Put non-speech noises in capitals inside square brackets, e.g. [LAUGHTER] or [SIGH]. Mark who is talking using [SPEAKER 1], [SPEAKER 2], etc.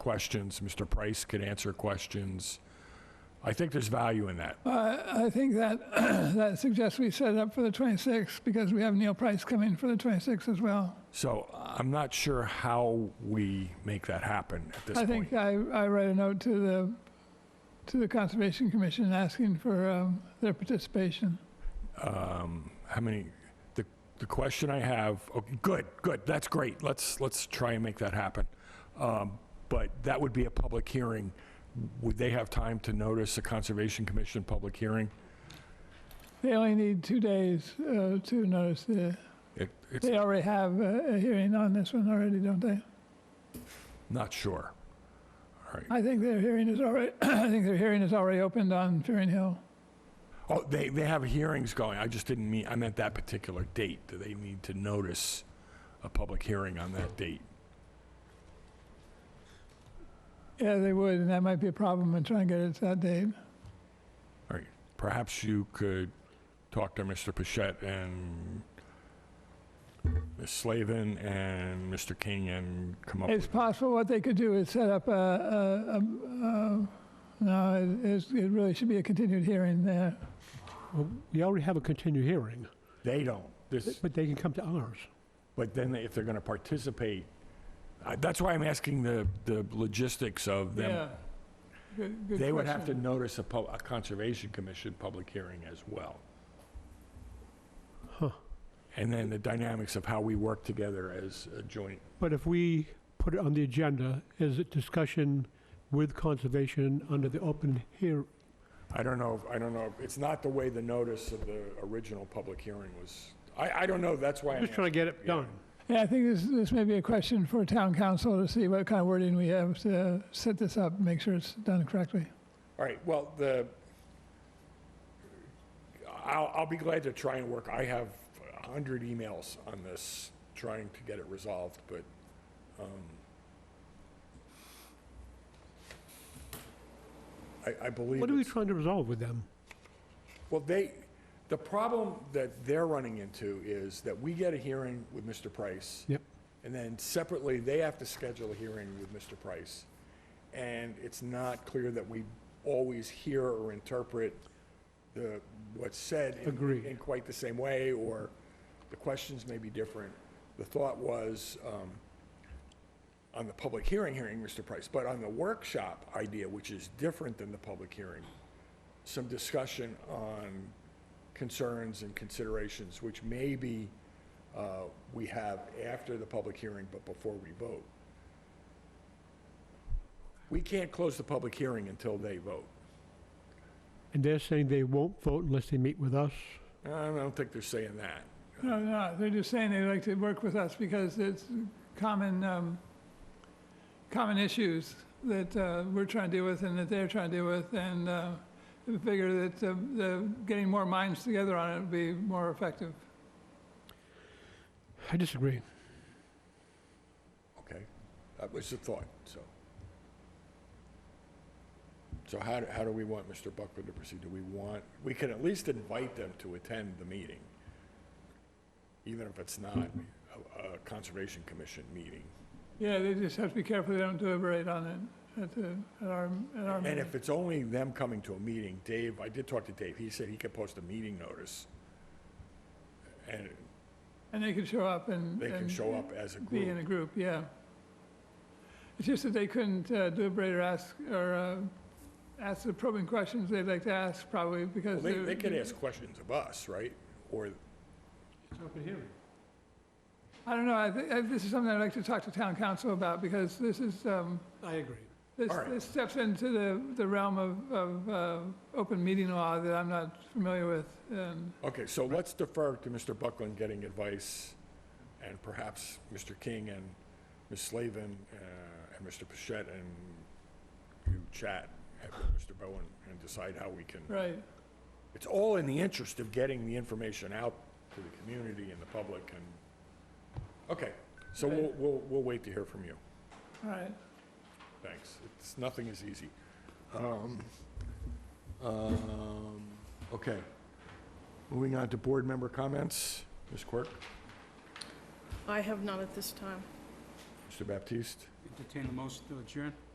[SPEAKER 1] questions, Mr. Price could answer questions. I think there's value in that.
[SPEAKER 2] I I think that, [CLEARS THROAT] that suggests we set it up for the 26th because we have Neil Price coming for the 26th as well.
[SPEAKER 1] So I'm not sure how we make that happen at this
[SPEAKER 2] I
[SPEAKER 1] point.
[SPEAKER 2] think I, I write a note to the, to the Conservation Commission asking for um, their participation.
[SPEAKER 1] um, how many, the, the question I have, okay, good, good, that's great, let's, let's try and make that happen. Um, But that would be a public hearing. Would they have time to notice a Conservation Commission public hearing?
[SPEAKER 2] They only need two days uh, to notice the,
[SPEAKER 1] It, it's
[SPEAKER 2] they already have a a hearing on this one already, don't they?
[SPEAKER 1] not sure. All right.
[SPEAKER 2] I think their hearing is already, [CLEARS THROAT] I think their hearing is already opened on Fearing Hill.
[SPEAKER 1] Oh, they, they have hearings going, I just didn't mean, I meant that particular date. Do they need to notice a public hearing on that date?
[SPEAKER 2] Yeah, they would, and that might be a problem and try and get it to that date.
[SPEAKER 1] All right, perhaps you could talk to Mr. Pichette and Ms. Slavin and Mr. King and come up
[SPEAKER 2] It's
[SPEAKER 1] with,
[SPEAKER 2] possible what they could do is set up a, a, a- a- no, it it's- it really should be a continued hearing there.
[SPEAKER 3] Well, we already have a continued hearing,
[SPEAKER 1] they don't, this,
[SPEAKER 3] but they can come to ours.
[SPEAKER 1] but then if they're going to participate, I- that's why I'm asking the, the logistics of them.
[SPEAKER 2] Good- good
[SPEAKER 1] They would have to
[SPEAKER 2] question.
[SPEAKER 1] notice a pub, a Conservation Commission public hearing as well.
[SPEAKER 3] Huh.
[SPEAKER 1] And then the dynamics of how we work together as a joint,
[SPEAKER 3] But if we put it on the agenda as a discussion with conservation under the open hear,
[SPEAKER 1] I don't know, I don't know, it's not the way the notice of the original public hearing was, I, I don't know, that's why I'm
[SPEAKER 3] just trying to get it done.
[SPEAKER 2] Yeah, I think this, this may be a question for town council to see what kind of wording we have to set this up, make sure it's done correctly.
[SPEAKER 1] All right, well, the, I'll, I'll be glad to try and work, I have a 100 emails on this, trying to get it resolved, but, um, I, I believe
[SPEAKER 3] What are we
[SPEAKER 1] it's,
[SPEAKER 3] trying to resolve with them?
[SPEAKER 1] well, they, the problem that they're running into is that we get a hearing with Mr. Price.
[SPEAKER 3] Yep.
[SPEAKER 1] And then separately, they have to schedule a hearing with Mr. Price. And it's not clear that we always hear or interpret the, what's said in-
[SPEAKER 3] Agreed.
[SPEAKER 1] in quite the same way, or the questions may be different. The thought was, um, on the public hearing, hearing Mr. Price, but on the workshop idea, which is different than the public hearing, some discussion on concerns and considerations, which maybe uh, we have after the public hearing, but before we vote. We can't close the public hearing until they vote.
[SPEAKER 3] And they're saying they won't vote unless they meet with us?
[SPEAKER 1] I don't think they're saying that.
[SPEAKER 2] No, no, they're just saying they like to work with us because it's common, um, common issues that uh, we're trying to deal with and that they're trying to deal with, and uh, we figure that uh, the, getting more minds together on it would be more effective.
[SPEAKER 3] I disagree.
[SPEAKER 1] Okay, that was the thought, so. So how, do- how do we want Mr. Buckland to proceed? Do we want, we can at least invite them to attend the meeting, even if it's not a, a Conservation Commission meeting.
[SPEAKER 2] Yeah, they just have to be careful they don't deliberate on it at the, at our, at our
[SPEAKER 1] And
[SPEAKER 2] meeting.
[SPEAKER 1] if it's only them coming to a meeting, Dave, I did talk to Dave, he said he could post a meeting notice. And
[SPEAKER 2] And they could show up and.
[SPEAKER 1] they can
[SPEAKER 2] and
[SPEAKER 1] show up as a
[SPEAKER 2] Be in
[SPEAKER 1] group.
[SPEAKER 2] a group, yeah. It's just that they couldn't uh, deliberate or ask, or uh, ask the probing questions they'd like to ask, probably,
[SPEAKER 1] Well,
[SPEAKER 2] because.
[SPEAKER 1] They,
[SPEAKER 2] they're-
[SPEAKER 1] they could ask questions of us, right? Or,
[SPEAKER 3] It's open hearing.
[SPEAKER 2] I don't know, I think, I- this is something I'd like to talk to town council about, because this is, um,
[SPEAKER 3] I agree.
[SPEAKER 2] this
[SPEAKER 1] All right.
[SPEAKER 2] this steps into the, the realm of, of uh, open meeting law that I'm not familiar with, and,
[SPEAKER 1] okay, so let's defer to Mr. Buckland getting advice, and perhaps Mr. King and Ms. Slavin, uh, and Mr. Pichette, and you chat with Mr. Bowen and decide how we can.
[SPEAKER 2] right.
[SPEAKER 1] It's all in the interest of getting the information out to the community and the public and, okay, so we'll, we'll, we'll wait to hear from you.
[SPEAKER 2] All right,
[SPEAKER 1] Thanks. It's, nothing is easy. Um, um, Okay. Moving on to board member comments. Ms. Quirk,
[SPEAKER 4] I have none at this time.
[SPEAKER 1] Mr. Baptiste?
[SPEAKER 5] Entertain the motion to adjourn?